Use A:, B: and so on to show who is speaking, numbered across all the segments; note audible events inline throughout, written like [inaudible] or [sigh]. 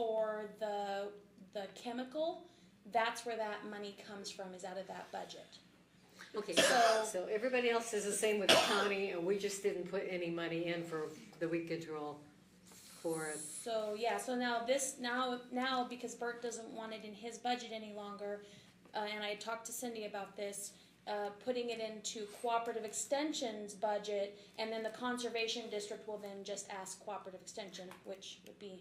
A: for the the chemical, that's where that money comes from, is out of that budget.
B: Okay,
A: So
C: So everybody else is the same with the county, and we just didn't put any money in for the weed control for,
A: So yeah, so now this now now because Bert doesn't want it in his budget any longer, uh, and I talked to Cindy about this, uh, putting it into cooperative extension's budget, and then the conservation district will then just ask cooperative extension, which would be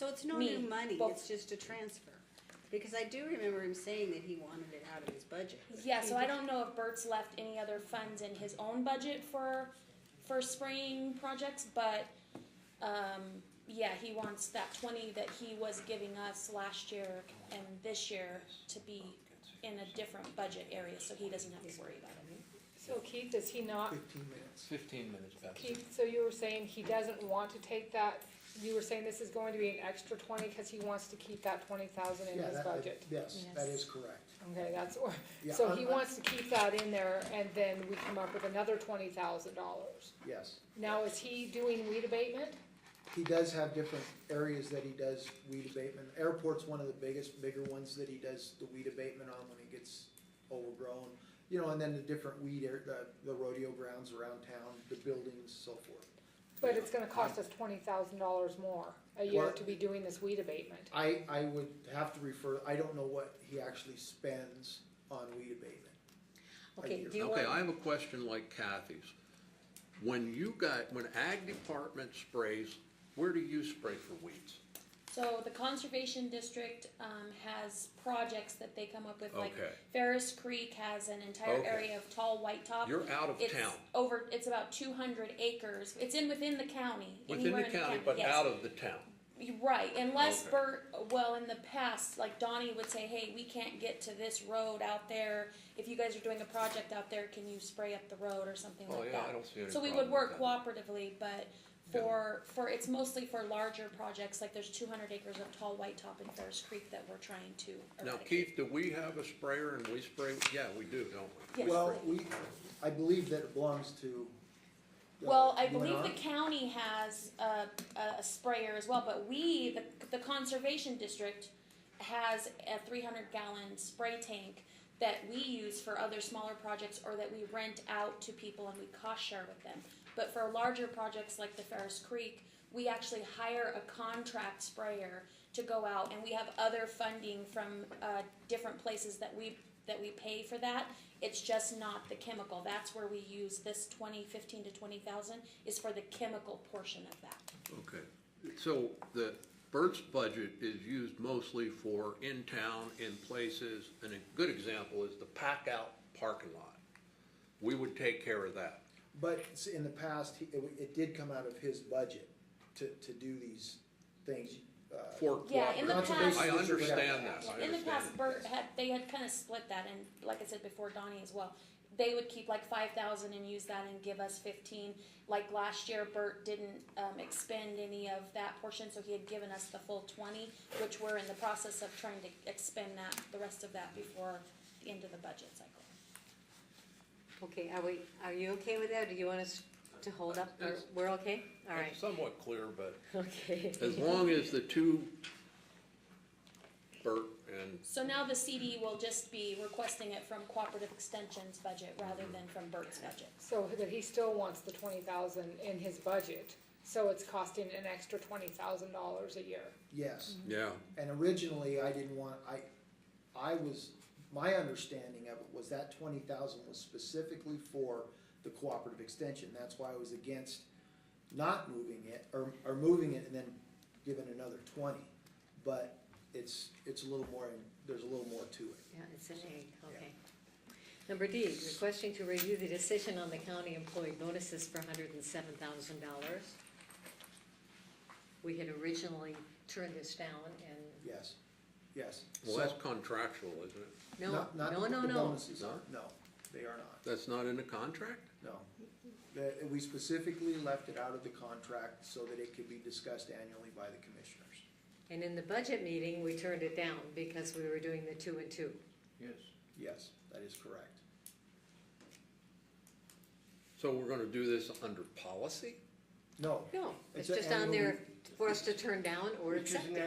D: So it's no
A: Me,
D: new money,
A: both.
D: it's just a transfer. Because I do remember him saying that he wanted it out of his budget.
A: yeah. So I don't know if Bert's left any other funds in his own budget for for spraying projects, but um, yeah, he wants that twenty that he was giving us last year and this year to be in a different budget area, so he doesn't have to worry about it.
E: So Keith, is he not,
F: Fifteen minutes.
G: Fifteen minutes past.
E: Keith, so you were saying he doesn't want to take that, you were saying this is going to be an extra twenty, cause he wants to keep that twenty thousand in
F: Yeah,
E: his
F: that-
E: budget?
F: Yes, that is correct.
E: Okay, that's, [laughs] or-
F: Yeah,
E: so
F: I'm-
E: he
F: I'm-
E: wants to keep that in there, and then we come up with another twenty thousand dollars.
F: Yes.
E: Now, is he doing weed abatement?
F: He does have different areas that he does weed abatement. Airport's one of the biggest, bigger ones that he does the weed abatement on when it gets overgrown. You know, and then the different weed, air- the, the rodeo grounds around town, the buildings, so forth.
E: But it's gonna cost us twenty thousand dollars more a year
F: Well-
E: to be doing this weed abatement.
F: I, I would have to refer, I don't know what he actually spends on weed abatement. a
C: okay,
F: year.
C: do you
H: Okay, I
C: want,
H: have a question like Kathy's. When you got, when ag department sprays, where do you spray for weeds?
A: So the conservation district um, has projects that they come up with, like
H: Okay.
A: Ferris Creek has an entire
H: Okay.
A: area of tall white top.
H: You're out of
A: it's
H: town.
A: Over, it's about two hundred acres. It's in within the county.
H: Within
A: anywhere
H: the
A: in
H: county, but
A: yes.
H: out of the town.
A: You're Right, unless
H: Okay.
A: Bert, well, in the past, like Donnie would say, hey, we can't get to this road out there. If you guys are doing a project out there, can you spray up the road or something
H: Oh,
A: like
H: yeah,
A: that?
H: I don't see any
A: So we would
H: problem
A: work
H: with that.
A: cooperatively, but for, for, it's mostly for larger projects, like there's two hundred acres of tall white top in Ferris Creek that we're trying to
H: Now,
A: eradicate.
H: Keith, do we have a sprayer and we spray? Yeah, we do, don't we?
A: Yes.
F: Well, we, I believe that it belongs to. uh,
A: Well, I
F: UNR.
A: believe the county has a, a sprayer as well, but we, the, the conservation district has a three hundred gallon spray tank that we use for other smaller projects or that we rent out to people and we cost share with them. But for larger projects like the Ferris Creek, we actually hire a contract sprayer to go out and we have other funding from, uh, different places that we, that we pay for that. It's just not the chemical. That's where we use this twenty, fifteen to twenty thousand is for the chemical portion of that.
H: Okay. So the Burt's budget is used mostly for in town, in places, and a good example is the pack out parking lot. We would take care of that.
F: But s- in the past, he- it, w- it did come out of his budget to, to do these things. uh,
H: For
A: Yeah, in the
H: cooperative.
A: past-
H: I understand that. I
A: In the
H: understand
A: past,
H: that.
A: Bert had, they had kind of split that, and like I said before, Donnie as well. They would keep like five thousand and use that and give us fifteen. Like last year, Bert didn't, um, expend any of that portion, so he had given us the full twenty, which we're in the process of trying to expend that, the rest of that before the end of the budget cycle.
C: okay, are we, are you okay with that, do you want us to hold up, or, we're okay? All right,
H: It's somewhat clear, but
C: okay.
H: [laughs] as long as the two, Bert and,
A: So now the CD will just be requesting it from Cooperative Extension's budget rather than from Bert's budget.
E: So that he still wants the twenty thousand in his budget, so it's costing an extra twenty thousand dollars a year.
F: Yes,
H: yeah,
F: and originally I didn't want, I, I was, my understanding of it was that twenty thousand was specifically for the cooperative extension. That's why I was against not moving it, or, or moving it and then giving another twenty. But it's, it's a little more, there's a little more to it.
C: Yeah, it's an A, okay. Number D, requesting to review the decision on the county employee bonuses for hundred and seven thousand dollars. We had originally turned this down and,
F: Yes, yes.
H: well,
F: So-
H: that's contractual, isn't it?
C: no,
F: Not- not
C: no, no,
F: the
C: no.
F: bonuses are, no, they are not,
H: That's not in the contract?
F: no. The- we specifically left it out of the contract so that it could be discussed annually by the commissioners.
C: And in the budget meeting, we turned it down because we were doing the two and two.
G: Yes.
F: Yes, that is correct.
H: So we're gonna do this under policy?
F: No,
C: No, it's
F: It's a
C: just on there
F: annual-
C: for us to turn down or
G: Which is
C: accept.
G: an
C: it.